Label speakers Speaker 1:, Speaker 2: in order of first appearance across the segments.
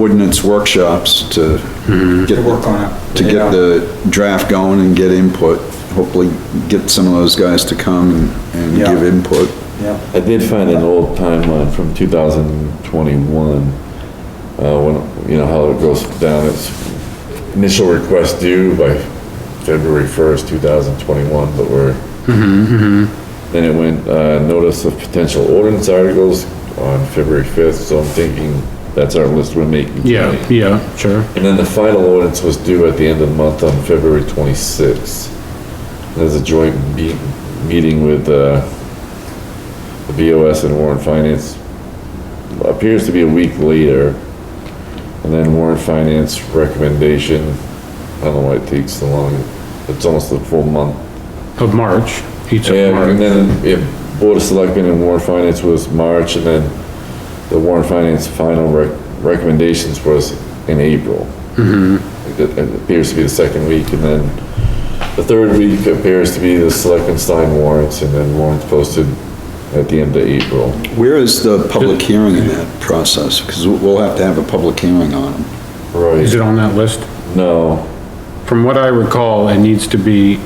Speaker 1: ordinance workshops to get,
Speaker 2: to work on it.
Speaker 1: to
Speaker 2: Mm-hmm. Yeah.
Speaker 1: get the draft going and get input. Hopefully get some of those guys to come and, and
Speaker 2: Yeah.
Speaker 1: give input.
Speaker 2: Yeah,
Speaker 3: I did find an old timeline from 2021, uh, when, you know, how it goes down, it's initial request due by February 1st, 2021, but we're, then it went, uh, notice of potential ordinance articles on February 5th, so I'm thinking that's our list we're making.
Speaker 4: Yeah,
Speaker 3: tonight.
Speaker 4: yeah, sure.
Speaker 3: And then the final ordinance was due at the end of the month on February 26th. There's a joint be- meeting with uh, the BOS and Warren Finance. Appears to be a week later. And then Warren Finance recommendation, I don't know why it takes so long. It's almost a full month
Speaker 4: Of March, each of
Speaker 3: yeah, and
Speaker 4: March.
Speaker 3: then, yeah, Board of Selectmen and Warren Finance was March, and then the Warren Finance final rec- recommendations was in April. Mm-hmm. It it appears to be the second week, and then the third week appears to be the Selectmen sign warrants, and then warrants posted at the end of April.
Speaker 1: Where is the public hearing in that process? Because we'll have to have a public hearing on them.
Speaker 4: Is
Speaker 3: Right,
Speaker 4: it on that list?
Speaker 3: no,
Speaker 4: From what I recall, it needs to be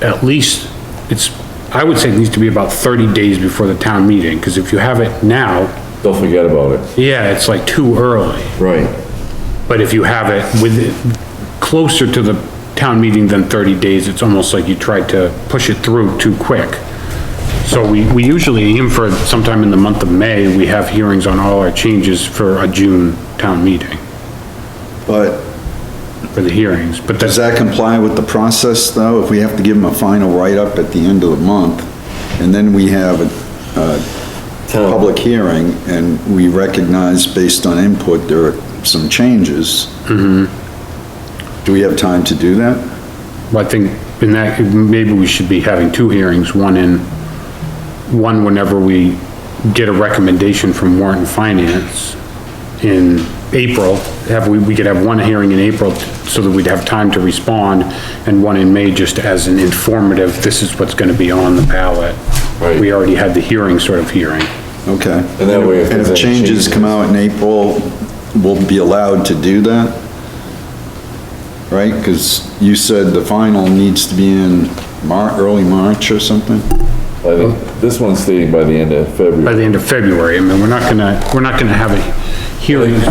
Speaker 4: at least, it's, I would say it needs to be about thirty days before the town meeting, because if you have it now,
Speaker 3: don't forget about it.
Speaker 4: yeah, it's like too early.
Speaker 3: Right.
Speaker 4: But if you have it with, closer to the town meeting than 30 days, it's almost like you tried to push it through too quick. So we, we usually aim for sometime in the month of May, we have hearings on all our changes for a June town meeting,
Speaker 1: But
Speaker 4: for the hearings, but
Speaker 1: does that
Speaker 4: that's,
Speaker 1: comply with the process though? If we have to give them a final write-up at the end of the month and then we have a, uh,
Speaker 3: Town-
Speaker 1: public hearing and we recognize based on input, there are some changes.
Speaker 3: Mm-hmm.
Speaker 1: Do we have time to do that?
Speaker 4: I think, in that, maybe we should be having two hearings, one in, one whenever we get a recommendation from Warren Finance in April, have, we, we could have one hearing in April so that we'd have time to respond, and one in May just as an informative, this is what's gonna be on the ballot.
Speaker 3: Right.
Speaker 4: We already had the hearing sort of hearing.
Speaker 1: Okay.
Speaker 3: And that way if
Speaker 1: And if
Speaker 3: there's any
Speaker 1: changes
Speaker 3: changes-
Speaker 1: come out in April, we'll be allowed to do that? Right? Because you said the final needs to be in Mar, early March or something?
Speaker 3: I think this one's stating by the end of
Speaker 4: By
Speaker 3: February.
Speaker 4: the end of February, I mean, we're not gonna, we're not gonna have a hearings,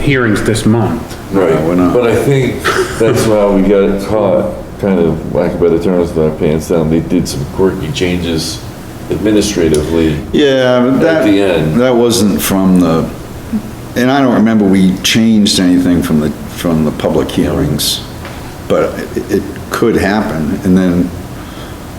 Speaker 4: hearings this month.
Speaker 3: Right,
Speaker 1: we're not.
Speaker 3: but I think that's why we got caught, kind of, lack of better terms, with our pants down. They did some quirky changes administratively.
Speaker 1: Yeah, but that,
Speaker 3: the end.
Speaker 1: that wasn't from the, and I don't remember we changed anything from the, from the public hearings, but it, it could happen, and then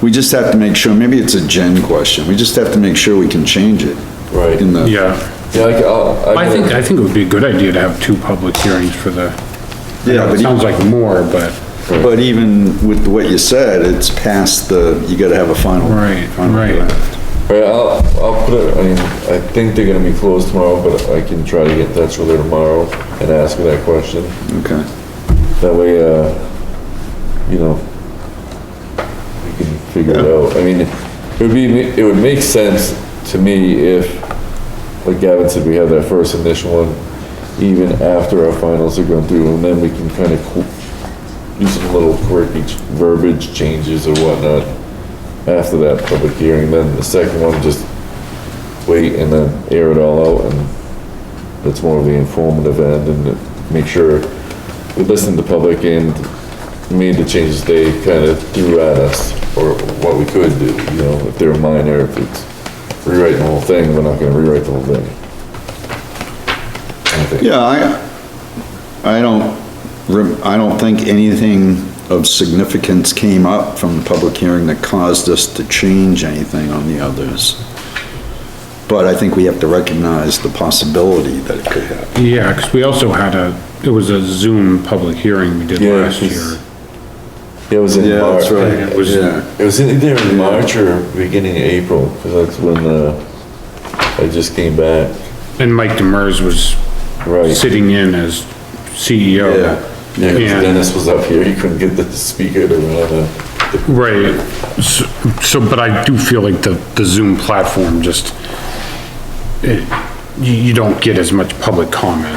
Speaker 1: we just have to make sure, maybe it's a gen question, we just have to make sure we can change it.
Speaker 3: Right.
Speaker 1: In the,
Speaker 4: Yeah,
Speaker 3: Yeah, I, I'll-
Speaker 4: I
Speaker 3: I
Speaker 4: think,
Speaker 3: can-
Speaker 4: I think it would be a good idea to have two public hearings for the,
Speaker 1: yeah,
Speaker 4: it
Speaker 1: but
Speaker 4: sounds
Speaker 1: even,
Speaker 4: like more, but,
Speaker 1: but even with what you said, it's past the, you gotta have a final.
Speaker 4: Right,
Speaker 1: final
Speaker 4: right.
Speaker 1: draft.
Speaker 3: Right, I'll, I'll put it, I mean, I think they're gonna be closed tomorrow, but I can try to get in touch with her tomorrow and ask her that question.
Speaker 1: Okay.
Speaker 3: That way, uh, you know, we can figure it out. I mean, it would be, it would make sense to me if, like Gavin said, we have that first initial one, even after our finals are going through, and then we can kind of do some little quirky ch- verbiage changes or whatnot after that public hearing, then the second one, just wait and then air it all out, and that's more of the informative end, and make sure we listened to public and made the changes they kind of threw at us, or what we could do, you know, if they're minor, if it's rewriting the whole thing, we're not gonna rewrite the whole thing. I think-
Speaker 1: Yeah, I, I don't, rem- I don't think anything of significance came up from the public hearing that caused us to change anything on the others. But I think we have to recognize the possibility that it could happen.
Speaker 4: yeah, because we also had a, it was a Zoom public hearing we did
Speaker 3: Yeah,
Speaker 4: last
Speaker 3: it's-
Speaker 4: year.
Speaker 3: Yeah, It was in March.
Speaker 4: It was-
Speaker 1: Yeah,
Speaker 3: It was in either in March or beginning of April, because that's when, uh, I just came back.
Speaker 4: And Mike Demers was
Speaker 3: Right.
Speaker 4: sitting in as E CEO.
Speaker 1: Yeah.
Speaker 3: Yeah, 'cause
Speaker 4: Yeah.
Speaker 3: Dennis was up here, he couldn't get the speaker to run uh, the
Speaker 4: Right, so, so, but I do feel like the, the Zoom platform just, it, you, you don't get as much public comment.